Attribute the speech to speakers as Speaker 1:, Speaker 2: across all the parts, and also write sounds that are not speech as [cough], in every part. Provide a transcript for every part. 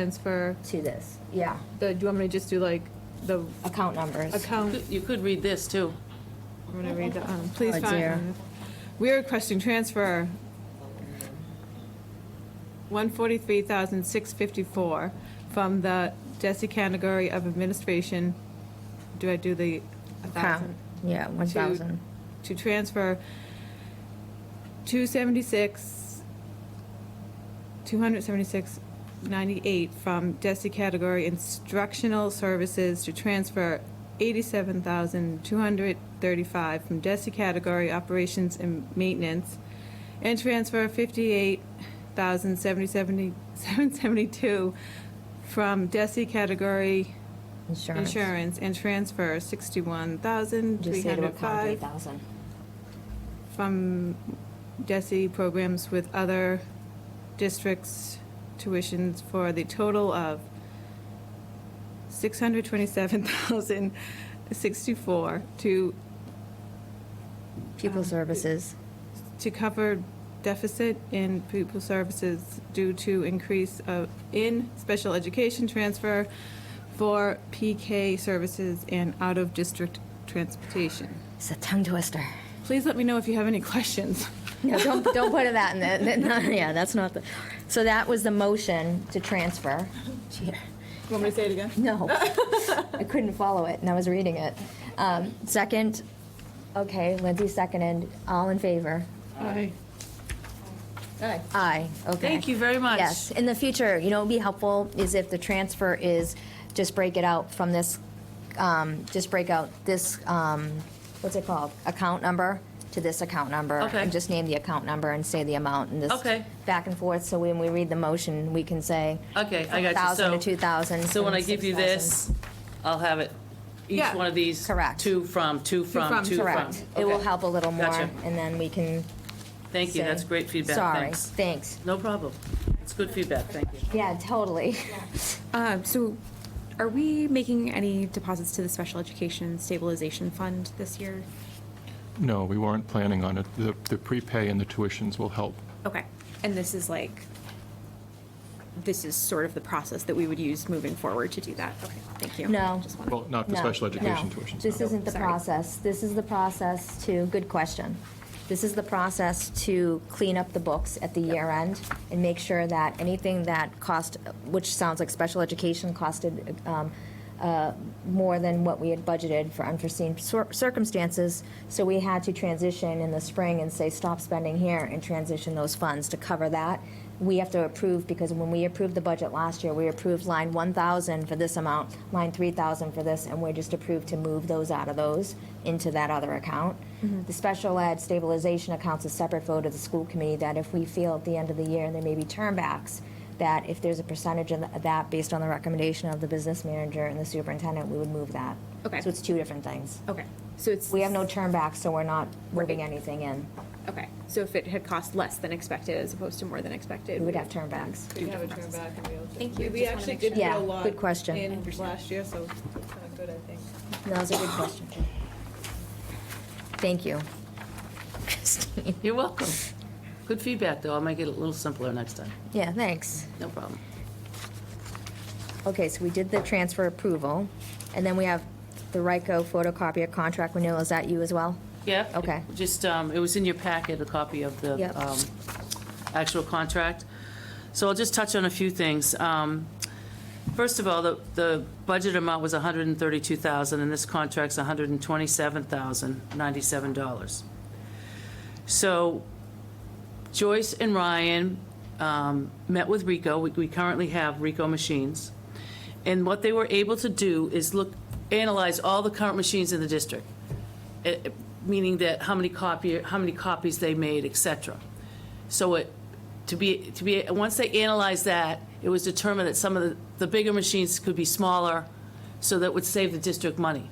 Speaker 1: transfer
Speaker 2: to this, yeah,
Speaker 1: the, do you want me to just do like the
Speaker 2: account numbers.
Speaker 1: account?
Speaker 3: You could read this, too.
Speaker 1: I'm gonna read the, um, please
Speaker 2: Oh, dear.
Speaker 1: find. We are requesting transfer one forty-three thousand six fifty-four from the DESI category of administration. Do I do the a
Speaker 2: Account,
Speaker 1: thousand?
Speaker 2: yeah, one thousand.
Speaker 1: To transfer two seventy-six, two hundred seventy-six ninety-eight from DESI category instructional services to transfer eighty-seven thousand two hundred thirty-five from DESI category operations and maintenance and transfer fifty-eight thousand seventy seventy seven seventy-two from DESI category
Speaker 2: Insurance.
Speaker 1: insurance and transfer sixty-one thousand three
Speaker 2: Just say to
Speaker 1: hundred
Speaker 2: account three
Speaker 1: five
Speaker 2: thousand.
Speaker 1: from DESI programs with other districts tuitions for the total of six hundred twenty-seven thousand sixty-four to,
Speaker 2: Pupil services,
Speaker 1: to cover deficit in pupil services due to increase of, in special education transfer for PK services and out-of-district transportation.
Speaker 2: it's a
Speaker 1: [laughs]
Speaker 2: tongue twister.
Speaker 1: Please let me know if you have any questions.
Speaker 2: No, don't, don't put that in there, That- [laughs] no, yeah, that's not the, so that was the motion to transfer. Cheater.
Speaker 1: Want me to say it again? [laughs]
Speaker 2: No, I couldn't follow it, and I was reading it. Um, Second, okay, Lindsay seconded, all in favor?
Speaker 1: Aye.
Speaker 2: Aye. Aye, okay.
Speaker 3: Thank you very much.
Speaker 2: Yes, in the future, you know, it'd be helpful is if the transfer is, just break it out from this, um, just break out this, um, what's it called? Account number to this account number.
Speaker 3: Okay.
Speaker 2: And just name the account number and say the amount and this.
Speaker 3: Okay.
Speaker 2: Back and forth, so when we read the motion, we can say.
Speaker 3: Okay, I got you.
Speaker 2: 1,000 to
Speaker 3: So-
Speaker 2: 2,000.
Speaker 3: So when
Speaker 2: from
Speaker 3: I give you
Speaker 2: 6,000.
Speaker 3: this, I'll have it, each
Speaker 1: Yeah.
Speaker 3: one of these.
Speaker 2: Correct.
Speaker 3: Two from, two
Speaker 1: from,
Speaker 3: from, two from.
Speaker 2: Correct. It will
Speaker 3: Okay.
Speaker 2: help a little more,
Speaker 3: Gotcha.
Speaker 2: and then we can
Speaker 3: Thank you,
Speaker 2: say,
Speaker 3: that's great feedback,
Speaker 2: Sorry,
Speaker 3: thanks.
Speaker 2: thanks.
Speaker 3: No problem. It's good feedback, thank you.
Speaker 2: Yeah, totally.
Speaker 4: Um, so are we making any deposits to the special education stabilization fund this year?
Speaker 5: No, we weren't planning on it. The the prepay and the tuitions will help.
Speaker 4: Okay, and this is like, this is sort of the process that we would use moving forward to do that? Okay, thank you.
Speaker 2: No.
Speaker 4: Just wanted-
Speaker 5: Well, not the
Speaker 2: No,
Speaker 5: special education
Speaker 2: no.
Speaker 5: tuitions.
Speaker 2: This
Speaker 5: no.
Speaker 2: isn't the
Speaker 4: Sorry.
Speaker 2: process. This is the process to, good question. This is the process to clean up the books at the year end and make sure that anything that cost, which sounds like special education costed um, uh, more than what we had budgeted for unforeseen cir- circumstances. So we had to transition in the spring and say, stop spending here and transition those funds to cover that. We have to approve, because when we approved the budget last year, we approved line 1,000 for this amount, line 3,000 for this, and we're just approved to move those out of those into that other account. The special ed stabilization account's a separate vote of the school committee that if we feel at the end of the year, and there may be turnbacks, that if there's a percentage of tha- that based on the recommendation of the business manager and the superintendent, we would move that.
Speaker 4: Okay.
Speaker 2: So it's two different things.
Speaker 4: Okay, so it's.
Speaker 2: We have no turn back, so we're not moving anything in.
Speaker 4: Okay, so if it had cost less than expected as opposed to more than expected?
Speaker 2: We would have turn backs.
Speaker 1: We have a turn back and we'll.
Speaker 4: Thank you.
Speaker 1: We
Speaker 4: Just wanna
Speaker 1: actually
Speaker 4: make
Speaker 1: did
Speaker 4: sure.
Speaker 1: do a
Speaker 2: Yeah,
Speaker 1: lot.
Speaker 2: good question.
Speaker 1: In last year, so it's kind of good, I think.
Speaker 2: That was a good question. Thank you. Christine.
Speaker 3: You're welcome. Good feedback, though, I'll make it a little simpler next time.
Speaker 2: Yeah, thanks.
Speaker 3: No problem.
Speaker 2: Okay, so we did the transfer approval, and then we have the RICO photocopier contract renewal. Is that you as well?
Speaker 3: Yeah.
Speaker 2: Okay.
Speaker 3: Just, um, it was in your packet, a copy of the
Speaker 2: Yep.
Speaker 3: um, actual contract. So I'll just touch on a few things. Um, First of all, the, the budget amount was 132,000, and this contract's 127,097 dollars. So Joyce and Ryan um, met with Rico. We- We currently have Rico machines. And what they were able to do is look, analyze all the current machines in the district, eh, eh, meaning that how many copy, how many copies they made, et cetera. So it, to be, to be, once they analyzed that, it was determined that some of the, the bigger machines could be smaller, so that would save the district money.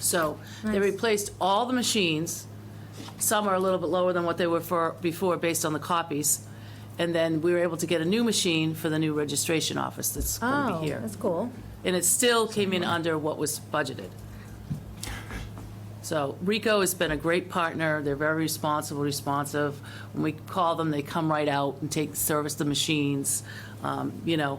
Speaker 3: So they replaced all the machines. Some are a little bit lower than what they were for, before, based on the copies. And then we were able to get a new machine for the new registration office that's going to be here.
Speaker 2: Oh, That's cool.
Speaker 3: And it still came in under what was budgeted. So Rico has been a great partner. They're very responsible, responsive. When we call them, they come right out and take, service the machines. Um, You know,